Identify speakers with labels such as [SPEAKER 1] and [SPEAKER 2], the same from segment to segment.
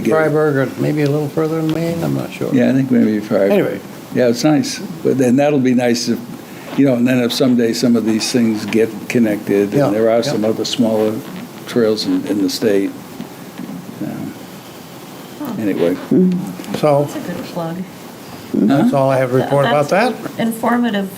[SPEAKER 1] beginning.
[SPEAKER 2] Freiburg, or maybe a little further than Maine, I'm not sure.
[SPEAKER 1] Yeah, I think maybe Freiburg.
[SPEAKER 2] Anyway,
[SPEAKER 1] Yeah, it's nice. But then that'll be nice if, you know, and then if someday some of these things get connected,
[SPEAKER 2] Yeah,
[SPEAKER 1] and there are
[SPEAKER 2] yeah.
[SPEAKER 1] some other smaller trails in, in the state. Um, Anyway, Uh-huh.
[SPEAKER 2] so
[SPEAKER 3] That's a good plug.
[SPEAKER 2] that's all I have to report about that.
[SPEAKER 3] That's Informative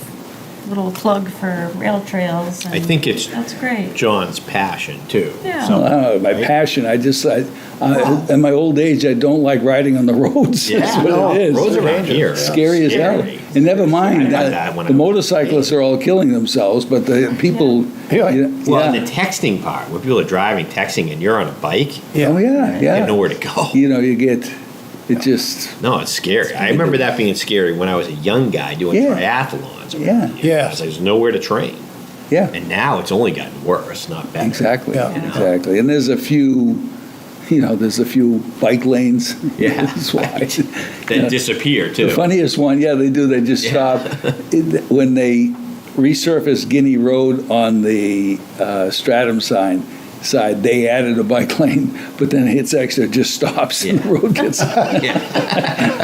[SPEAKER 3] little plug for rail trails.
[SPEAKER 4] I
[SPEAKER 3] and
[SPEAKER 4] think it's
[SPEAKER 3] That's great.
[SPEAKER 4] John's passion too.
[SPEAKER 3] Yeah.
[SPEAKER 4] So-
[SPEAKER 1] Uh, my passion, I just, I, I- in my old age, I don't like riding on the roads, is
[SPEAKER 4] Yeah.
[SPEAKER 1] what it is.
[SPEAKER 4] Roads around here. are
[SPEAKER 1] Scary as hell.
[SPEAKER 4] scary.
[SPEAKER 1] And never mind,
[SPEAKER 4] I got
[SPEAKER 1] uh,
[SPEAKER 4] that when
[SPEAKER 1] the
[SPEAKER 4] I was a
[SPEAKER 1] motorcyclists are all killing themselves, but the people,
[SPEAKER 2] Yeah.
[SPEAKER 1] yeah,
[SPEAKER 4] Well,
[SPEAKER 1] yeah.
[SPEAKER 4] and the texting part, when people are driving, texting, and you're on a bike, you
[SPEAKER 1] oh, yeah,
[SPEAKER 4] have
[SPEAKER 1] yeah.
[SPEAKER 4] nowhere to go.
[SPEAKER 1] You know, you get, it just,
[SPEAKER 4] No, it's scary. I remember that being scary when I was a young guy doing
[SPEAKER 1] Yeah.
[SPEAKER 4] triathlons. around
[SPEAKER 1] Yeah.
[SPEAKER 4] here.
[SPEAKER 2] Yeah.
[SPEAKER 4] I was like, There's nowhere to train.
[SPEAKER 1] yeah.
[SPEAKER 4] And now it's only gotten worse, not better.
[SPEAKER 1] Exactly,
[SPEAKER 2] Yeah.
[SPEAKER 1] exactly. And there's a few, you know, there's a few bike lanes.
[SPEAKER 4] Yeah.
[SPEAKER 1] That's why.
[SPEAKER 4] That disappear too.
[SPEAKER 1] The funniest one, yeah, they do, they just
[SPEAKER 4] Yeah.
[SPEAKER 1] stop. It- When they resurfaced Guinea Road on the uh, Stratum sign, side, they added a bike lane, but then it hits exit, it just stops and the road gets,
[SPEAKER 4] Yeah.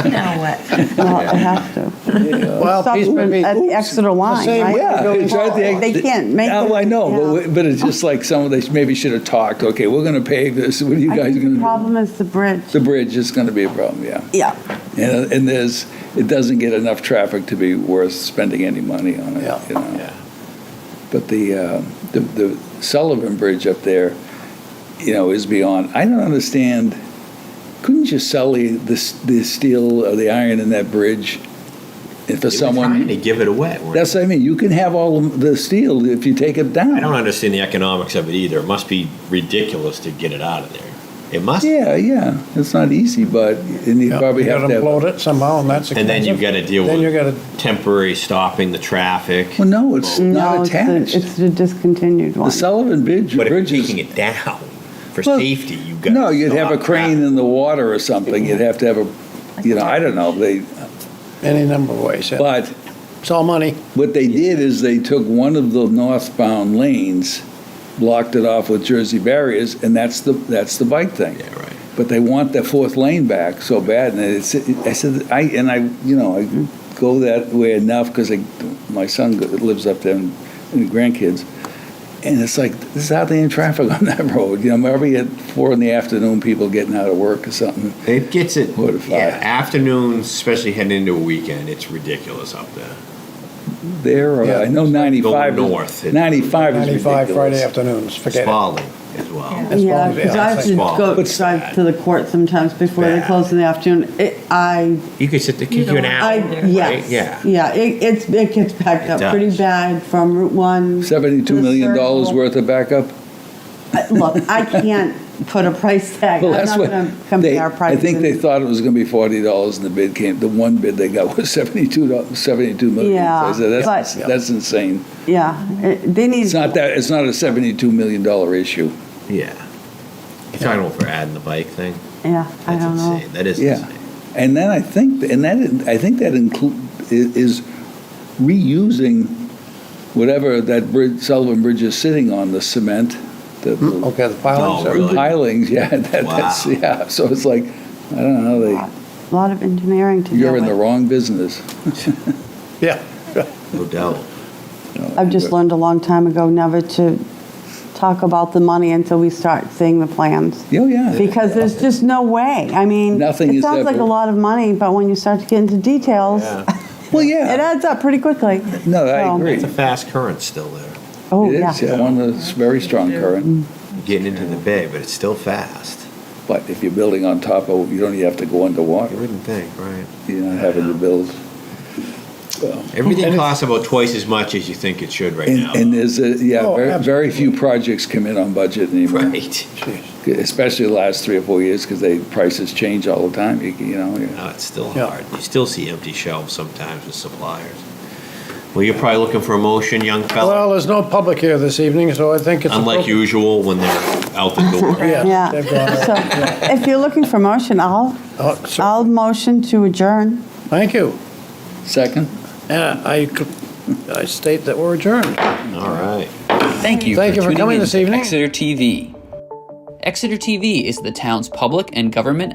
[SPEAKER 3] Now what?
[SPEAKER 5] Well, I have to.
[SPEAKER 2] Well,
[SPEAKER 5] Stop
[SPEAKER 2] piece by
[SPEAKER 5] at
[SPEAKER 2] piece.
[SPEAKER 5] the Exeter line,
[SPEAKER 2] same
[SPEAKER 5] right?
[SPEAKER 2] way
[SPEAKER 1] yeah. it's right there.
[SPEAKER 5] They can't make it.
[SPEAKER 1] Oh, I know, but
[SPEAKER 5] yeah.
[SPEAKER 1] we- but it's just like some of they maybe should have talked, okay, we're going to pave this, what are you
[SPEAKER 5] I
[SPEAKER 1] guys
[SPEAKER 5] think
[SPEAKER 1] going
[SPEAKER 5] The
[SPEAKER 1] to do?
[SPEAKER 5] problem is the bridge.
[SPEAKER 1] The bridge is going to be a problem, yeah.
[SPEAKER 5] Yeah.
[SPEAKER 1] And, and there's, it doesn't get enough traffic to be worth spending any money on
[SPEAKER 2] Yeah.
[SPEAKER 1] it, you know?
[SPEAKER 4] Yeah.
[SPEAKER 1] But the, uh, the, the Sullivan Bridge up there, you know, is beyond, I don't understand, couldn't you sell the, the s- the steel or the iron in that bridge? If for
[SPEAKER 4] They were trying to
[SPEAKER 1] someone,
[SPEAKER 4] give it away. weren't
[SPEAKER 1] that's what I mean, you can have all the steel if you take it
[SPEAKER 4] I don't
[SPEAKER 1] down.
[SPEAKER 4] understand the economics of it either. It must be ridiculous to get it out of there. It must.
[SPEAKER 1] Yeah, yeah, it's not easy, but, and you
[SPEAKER 2] Yeah,
[SPEAKER 1] probably
[SPEAKER 2] you
[SPEAKER 1] have
[SPEAKER 2] gotta
[SPEAKER 1] to have.
[SPEAKER 2] upload it somehow, and that's
[SPEAKER 4] And then
[SPEAKER 2] expensive.
[SPEAKER 4] you've got to deal
[SPEAKER 2] Then you
[SPEAKER 4] with
[SPEAKER 2] gotta,
[SPEAKER 4] temporary stopping the traffic.
[SPEAKER 1] Well, no, it's
[SPEAKER 5] No,
[SPEAKER 1] not
[SPEAKER 5] it's the-
[SPEAKER 1] attached.
[SPEAKER 5] It's the discontinued
[SPEAKER 1] The
[SPEAKER 5] one.
[SPEAKER 1] Sullivan Bridge,
[SPEAKER 4] But if
[SPEAKER 1] Bridge
[SPEAKER 4] you're
[SPEAKER 1] is.
[SPEAKER 4] taking it down for
[SPEAKER 1] Well,
[SPEAKER 4] safety, you got.
[SPEAKER 1] No, you'd have a crane in the water or something, you'd have to have a, you know, I don't know, they,
[SPEAKER 2] any number of ways. yeah.
[SPEAKER 1] but
[SPEAKER 2] It's all money.
[SPEAKER 1] what they did is they took one of the northbound lanes, blocked it off with Jersey barriers, and that's the, that's the bike thing.
[SPEAKER 4] Yeah, right.
[SPEAKER 1] But they want the fourth lane back so bad, and it's, I said, I, and I, you know, I go that way enough, because I, my son go- lives up there, and and grandkids, and it's like, this is how they in traffic on that road, you know, maybe at four in the afternoon, people getting out of work or something.
[SPEAKER 4] It gets it.
[SPEAKER 1] Four to five.
[SPEAKER 4] Yeah, afternoons, especially heading into a weekend, it's ridiculous up there.
[SPEAKER 1] There, uh,
[SPEAKER 2] Yeah.
[SPEAKER 1] I know 95.
[SPEAKER 4] Going north.
[SPEAKER 1] 95 is
[SPEAKER 2] 95 Friday
[SPEAKER 1] ridiculous.
[SPEAKER 2] afternoons,
[SPEAKER 4] It's
[SPEAKER 2] forget it.
[SPEAKER 4] falling as well.
[SPEAKER 3] Yeah.
[SPEAKER 5] Yeah,
[SPEAKER 2] probably-
[SPEAKER 5] because
[SPEAKER 2] yeah,
[SPEAKER 5] I
[SPEAKER 2] it's
[SPEAKER 5] have
[SPEAKER 2] like
[SPEAKER 5] to
[SPEAKER 4] small.
[SPEAKER 5] go
[SPEAKER 4] But it's
[SPEAKER 5] drive
[SPEAKER 4] bad.
[SPEAKER 5] to the court sometimes before they
[SPEAKER 4] bad.
[SPEAKER 5] close in the afternoon. It- I,
[SPEAKER 4] You could sit there,
[SPEAKER 3] You
[SPEAKER 4] kick you an
[SPEAKER 3] don't-
[SPEAKER 4] hour.
[SPEAKER 5] I,
[SPEAKER 3] there,
[SPEAKER 5] yes.
[SPEAKER 4] Yeah.
[SPEAKER 5] Yeah, it, it's, it gets packed
[SPEAKER 4] It
[SPEAKER 5] up pretty
[SPEAKER 4] does.
[SPEAKER 5] bad from Route 1. to
[SPEAKER 1] 72
[SPEAKER 5] the
[SPEAKER 1] million dollars
[SPEAKER 5] circle.
[SPEAKER 1] worth of backup?
[SPEAKER 5] I- Look, I can't put a price tag.
[SPEAKER 1] Well,
[SPEAKER 5] I'm
[SPEAKER 1] that's
[SPEAKER 5] not
[SPEAKER 1] what,
[SPEAKER 5] going to
[SPEAKER 1] they,
[SPEAKER 5] compare
[SPEAKER 1] I
[SPEAKER 5] prices.
[SPEAKER 1] think they thought it was gonna be $40 and the bid came, the one bid they got was 72, doll- 72 million. So I
[SPEAKER 5] Yeah,
[SPEAKER 1] said, that's,
[SPEAKER 5] but-
[SPEAKER 1] that's insane.
[SPEAKER 5] Yeah, it- they need.
[SPEAKER 1] It's not that, it's not a $72 million dollar issue.
[SPEAKER 4] Yeah. You're talking about for adding the bike thing?
[SPEAKER 5] Yeah, I
[SPEAKER 4] That's
[SPEAKER 5] don't know.
[SPEAKER 4] insane. That is
[SPEAKER 1] Yeah.
[SPEAKER 4] insane.
[SPEAKER 1] And then I think, and that, I think that include, is reusing whatever that bridge, Sullivan Bridge is sitting on, the cement, the- the
[SPEAKER 2] Mm, Okay, the pilings
[SPEAKER 4] No,
[SPEAKER 2] are,
[SPEAKER 4] really.
[SPEAKER 1] pilings, yeah, that, that's,
[SPEAKER 4] Wow.
[SPEAKER 1] yeah, so it's like, I don't know,
[SPEAKER 5] A
[SPEAKER 1] they,
[SPEAKER 5] lot of engineering to do.
[SPEAKER 1] you're in
[SPEAKER 5] it.
[SPEAKER 1] the wrong business.
[SPEAKER 2] yeah.
[SPEAKER 4] No doubt.
[SPEAKER 1] you know.
[SPEAKER 5] I've just learned a long time ago never to talk about the money until we start seeing the plans.
[SPEAKER 1] Oh, yeah,
[SPEAKER 5] Because there's just no way. I mean,
[SPEAKER 1] Nothing
[SPEAKER 5] it
[SPEAKER 1] is
[SPEAKER 5] sounds like
[SPEAKER 1] ever-
[SPEAKER 5] a lot of money, but when you start to get into details,
[SPEAKER 4] Yeah.
[SPEAKER 1] well,
[SPEAKER 5] it
[SPEAKER 1] yeah,
[SPEAKER 5] adds up pretty quickly.
[SPEAKER 1] no, I
[SPEAKER 5] so-
[SPEAKER 1] agree.
[SPEAKER 4] It's a fast current still there.
[SPEAKER 5] Oh,
[SPEAKER 1] It
[SPEAKER 5] yeah.
[SPEAKER 1] is, yeah, one that's very strong
[SPEAKER 4] Mm.
[SPEAKER 1] current,
[SPEAKER 4] Getting into the bay, but it's still fast.
[SPEAKER 1] but if you're building on top of, you don't even have to go
[SPEAKER 4] You
[SPEAKER 1] underwater,
[SPEAKER 4] wouldn't think, right?
[SPEAKER 1] you're not having to build. Well,
[SPEAKER 4] Everything costs about twice as much as you think it should right
[SPEAKER 1] And,
[SPEAKER 4] now.
[SPEAKER 1] and there's, a- yeah,
[SPEAKER 2] Oh,
[SPEAKER 1] very, very few projects come in on budget anymore,
[SPEAKER 4] Right.
[SPEAKER 1] especially the last three or four years, because they, prices change all the time, you you know. yeah.
[SPEAKER 4] No, it's still
[SPEAKER 2] Yeah.
[SPEAKER 4] hard. You still see empty shelves sometimes with suppliers. Well, you're probably looking for a motion, young
[SPEAKER 2] Well,
[SPEAKER 4] fella,
[SPEAKER 2] there's no public here this evening, so I think it's.
[SPEAKER 4] unlike
[SPEAKER 2] appropriate-
[SPEAKER 4] usual when they're out the door.
[SPEAKER 2] Yeah. they've gone
[SPEAKER 5] So
[SPEAKER 2] out.
[SPEAKER 5] if you're looking for motion, I'll,
[SPEAKER 2] Oh, so-
[SPEAKER 5] I'll motion to adjourn.
[SPEAKER 2] Thank you.
[SPEAKER 1] Second?
[SPEAKER 2] And I, I state that we're adjourned.
[SPEAKER 4] All right.
[SPEAKER 6] Thank you.
[SPEAKER 2] Thank you for
[SPEAKER 6] tuning
[SPEAKER 2] coming
[SPEAKER 6] in
[SPEAKER 2] this
[SPEAKER 6] to
[SPEAKER 2] evening.
[SPEAKER 6] Exeter TV. Exeter TV is the town's public and government